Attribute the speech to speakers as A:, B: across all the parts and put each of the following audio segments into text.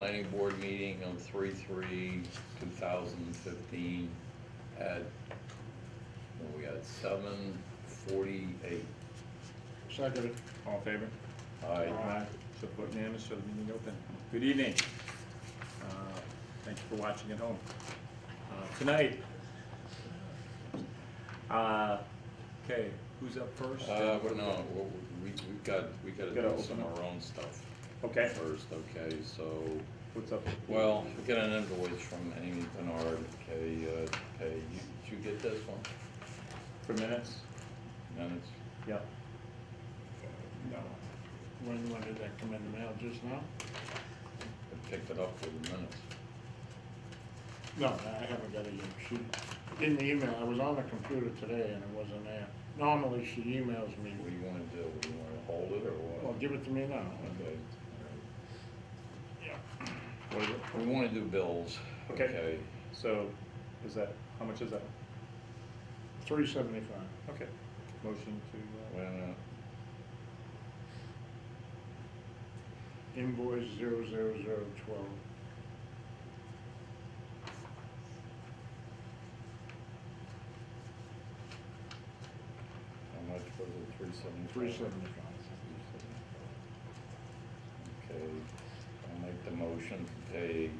A: planning board meeting on three, three, two thousand fifteen at, what we got, seven forty-eight.
B: Second.
C: All in favor?
A: All right,
B: Aye.
C: So vote unanimous, so the meeting open. Good evening. Uh, Thank you for watching at home. Uh, Tonight, uh, okay, who's up first?
A: uh, but no, we, we- we've got, we gotta
C: Gotta
A: do
C: open
A: some of
C: up.
A: our own stuff
C: Okay,
A: first, okay, so,
C: what's up?
A: well, we got an invoice from Amy Bernard, okay, uh, hey, you, did you get this one?
C: For minutes?
A: Minutes?
C: Yep.
B: No. When, when did that come in the mail, just now?
A: I picked it up for the minutes.
B: No, I haven't got it yet. She didn't email, I was on the computer today and it wasn't there. Normally she emails me,
A: What do you wanna do? Do you wanna hold it or
B: well,
A: what?
B: give it to me now.
A: Okay, all right.
B: Yeah.
C: What is it?
A: We wanna do bills.
C: Okay. So, is that, how much is that?
B: Three seventy-five.
C: Okay, motion to, uh,
A: Wait a minute.
B: Invoice zero zero zero twelve.
A: How much was it, three seventy-five?
B: Three seventy-five.
A: Okay, I'll make the motion to pay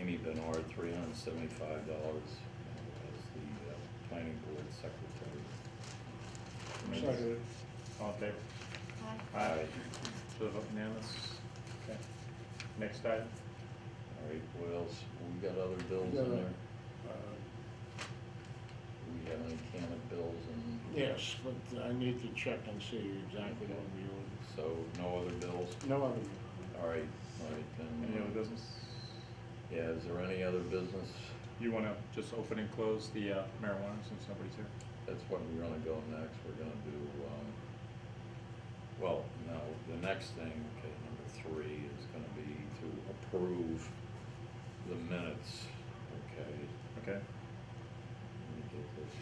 A: Amy Benoit three hundred and seventy-five dollars as the uh, planning board secretary.
C: Minutes.
B: Second.
C: uh, all in favor?
A: Aye.
C: So the vote unanimous? Okay. Next item?
A: All right, what else? We got other bills
B: Yeah.
A: in there?
B: Uh,
A: We have any can of bills and?
B: Yes, but I need to check and see exactly what we ordered.
A: So, no other bills?
B: No other.
A: All right, all right, then. uh,
C: Any other business?
A: Yeah, is there any other business?
C: You wanna just open and close the uh, marijuana since nobody's here?
A: That's what we're gonna go next, we're gonna do, um, well, no, the next thing, okay, number three is gonna be to approve the minutes, okay?
C: Okay,
A: Let me get this.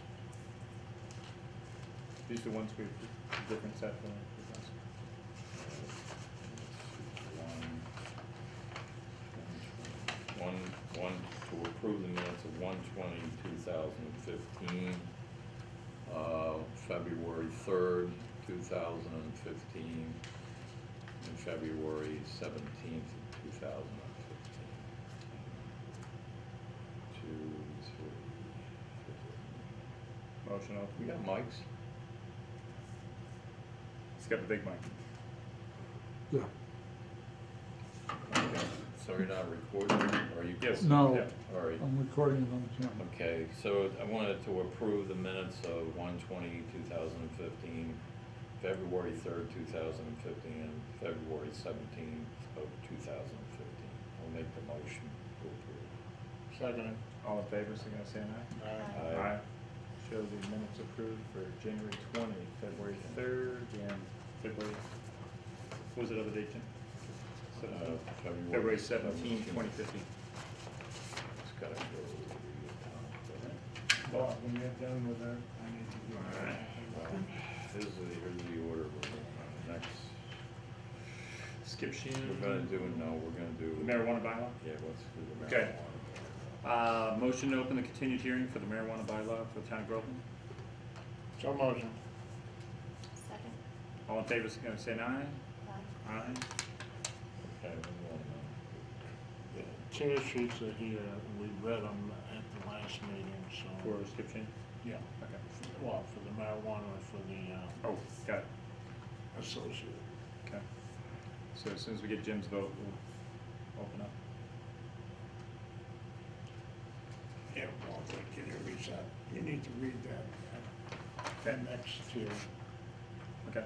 C: these are the ones we, the different set from the last.
A: uh, One, one, to approve the minutes of one twenty, two thousand fifteen, uh, February third, two thousand and fifteen, and February seventeenth, two thousand and fifteen. Two, three.
C: Motion
A: We
C: open.
A: got mics?
C: He's got the big mic.
D: Yeah,
A: Okay, so you're not recording, or you?
C: Yes.
D: No.
C: yeah.
A: All right.
D: I'm recording it on camera.
A: Okay, so I wanted to approve the minutes of 1/20, 2015, February third, two thousand and fifteen, and February seventeenth of two thousand and fifteen. I'll make the motion to approve.
B: Second.
C: All in favor, so gonna say aye?
B: Aye.
A: Aye.
C: Show the minutes approved for January twenty, February third, and February, what was it other date, Jim? Seventeen.
A: Uh, February
C: February seventeen, twenty fifteen.
A: It's gotta go to
B: Well, when you're done with that, I need to do
A: the, uh, well, here's the, here's the order we're going to next.
C: Skip Sheehan.
A: We're gonna do, no, we're gonna do.
C: Marijuana bylaw?
A: Yeah, let's do the marijuana.
C: Okay. Uh, motion to open the continued hearing for the marijuana bylaw for the town of Groveland.
B: So motion.
E: Second.
C: All in favor, so gonna say an aye?
E: Aye.
C: Aye.
A: Okay, we want, uh,
B: The Tear sheets are here, we read them at the last meeting, so.
C: For skip Sheehan?
B: Yeah,
C: Okay.
B: well, for the marijuana, for the, uh,
C: Oh, got it.
B: associate.
C: Okay. So as soon as we get Jim's vote, we'll open up.
B: Yeah, well, thank you, you read that, you need to read that, uh, that next tier.
C: Okay.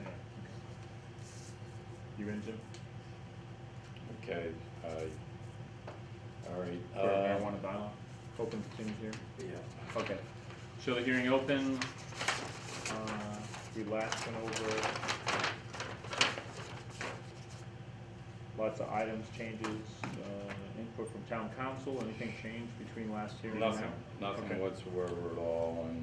C: Yeah, okay. You in, Jim?
A: Okay, I, all right.
C: For
A: uh,
C: marijuana bylaw? Open continued hearing?
A: Yeah.
C: Okay. So the hearing open. Uh, We last went over lots of items, changes, uh, input from town council. Anything changed between last hearing and now?
A: Nothing, nothing
C: Okay.
A: whatsoever at all, and